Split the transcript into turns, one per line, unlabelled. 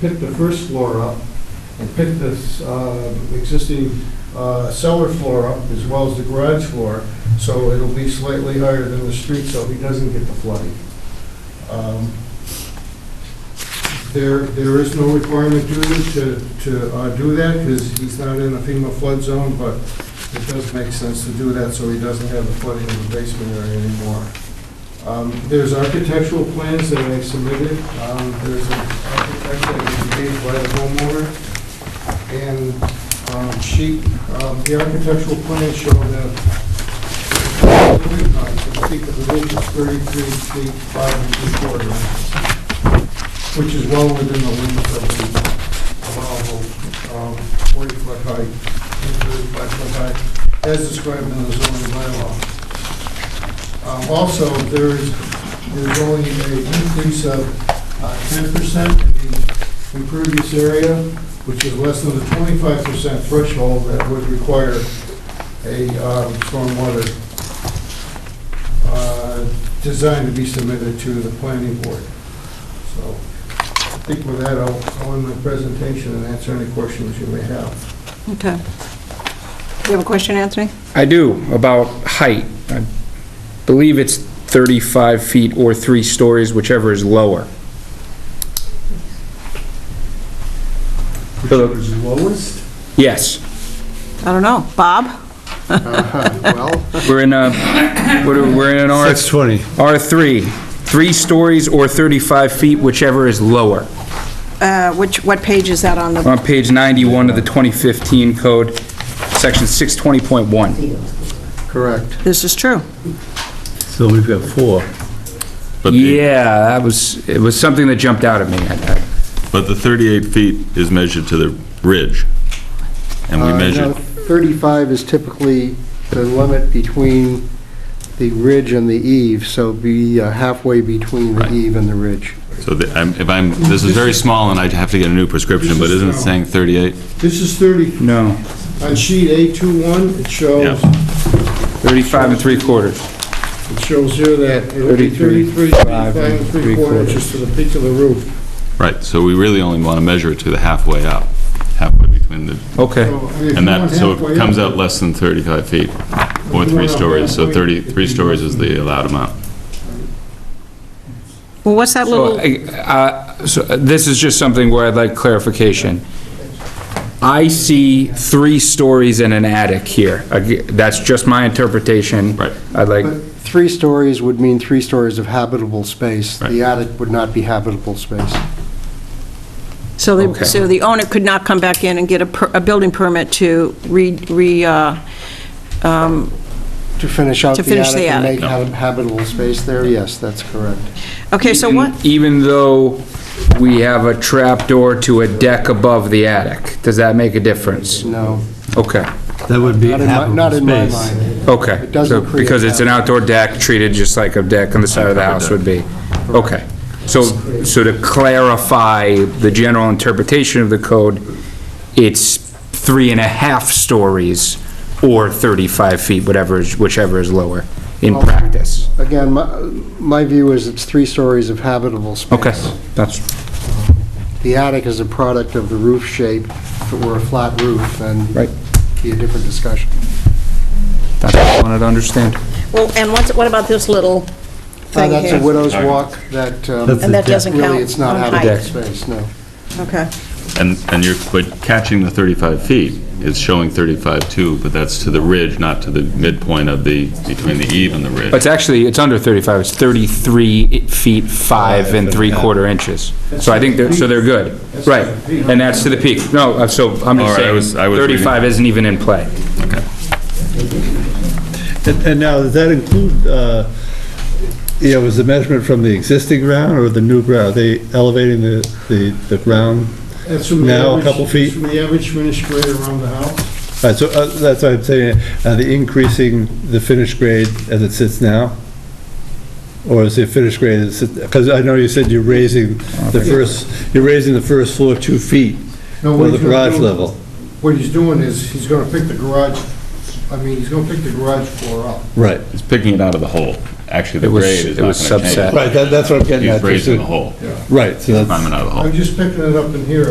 pick the first floor up, and pick the uh, existing uh, cellar floor up as well as the garage floor, so it'll be slightly higher than the street, so he doesn't get the flooding. Um, There, there is no requirement due to, to uh, do that, because he's not in a FEMA flood zone, but it does make sense to do that, so he doesn't have the flooding in the basement area anymore. Um, There's architectural plans that I submitted. Um, There's an architect that was engaged by the homeowner. And um, she, um, the architectural plans show that uh, the peak of the roof is 33 feet 5 and 3 quarter, which is well within the limits of the allowable 40-foot height, and 35-foot height, as described in the zoning bylaw. Um, Also, there is, there's only an increase of uh, ten percent in the impervious area, which is less than the twenty-five percent threshold that would require a um, stormwater uh, design to be submitted to the planning board. So I think with that, I'll, I'll end my presentation and answer any questions you may have.
Okay. You have a question, Anthony?
I do, about height. I believe it's 35 feet or three stories, whichever is lower. Whichever
is lowest?
Yes,
I don't know. Bob?
Well,
we're in a, what are- we're in an R,
That's 20.
R3, three stories or 35 feet, whichever is lower.
Uh, Which, what page is that on the,
On page 91 of the 2015 code, section 620.1.
correct.
this is true.
So we've got four.
But the,
Yeah, that was, it was something that jumped out at me. I- I-
but the 38 feet is measured to the ridge, and we
Uh,
measured,
no, 35 is typically the limit between the ridge and the eave, so be uh, halfway between the
Right.
eave and the ridge.
so the- I'm- if I'm, this is very small, and I have to get a new prescription, but isn't it saying 38?
This is thirty,
No,
on sheet A21, it shows
Yeah.
35 and three quarters.
It shows here that it'll be
33,
33,
five,
5
and
and 3 quarter
three-quarters.
inches to the peak of the roof.
Right, so we really only want to measure it to the halfway up, halfway between the,
Okay.
So, I mean, if
and
you
that,
went
so
halfway
it comes
up,
out less than 35 feet, or three stories, so 30, three stories is the allowed amount.
Well, what's that
So,
little,
I- uh, so, uh, this is just something where I'd like clarification. I see three stories and an attic here. Ag- That's just my interpretation.
Right.
I'd like,
But three stories would mean three stories of habitable space.
Right.
The attic would not be habitable space.
so
okay.
the, so the owner could not come back in and get a, per- a building permit to re, re, uh, um,
To finish out
To
the
finish
attic
the
and
attic.
make hab- habitable space there, yes, that's correct.
okay, so
even-
what,
Even though we have a trapdoor to a deck above the attic, does that make a difference?
No,
Okay,
That would be
not in my- not in my
habitable space.
mind.
okay.
It doesn't
So,
create
Because it's an outdoor deck treated just like a deck on the side of the house would be. Okay. So, so to clarify the general interpretation of the code, it's three and a half stories or 35 feet, whatever, is- whichever is lower in practice.
Again, my, my view is it's three stories of habitable space.
Okay, that's,
The attic is a product of the roof shape. If it were a flat roof, then
Right.
be a different discussion.
that's what I wanted to understand.
well, and what's, what about this little
Uh,
thing
That's a
here?
widow's walk that, um,
And
That's
that
The deck.
doesn't count?
really, it's not
on
habitable
height.
space, no.
Okay,
And, and you're, but catching the 35 feet is showing 35 too, but that's to the ridge, not to the midpoint of the, between the eve and the ridge.
It's actually, it's under 35, it's 33 feet 5 and 3 quarter inches. So I think, they're so they're good. Right, and that's to the peak. No, uh, so I'm
All right, I
just
was- I
saying,
was reading.
35 isn't even in play.
And and now, does that include, uh, you know, was the measurement from the existing ground or the new ground? Are they elevating the, the the ground?
That's from the
Now, a
average-
couple feet.
From the average finished grade around the house.
Uh, So uh, that's what I'm saying, are they increasing the finish grade as it sits now? Or is the finish grade, because I know you said you're raising the first, you're raising the first floor two feet
No, what
for the
he's gonna
garage
do-
level.
What he's doing is, he's gonna pick the garage, I mean, he's gonna pick the garage floor up.
Right.
It's picking it out of the hole. actually the
It was-
grade is
it was
not going to
subset.
change.
Right, that- that's what I'm getting at.
He's raising the hole,
Yeah.
Right, so that's.
climbing out of the hole.
I'm just picking it up in here,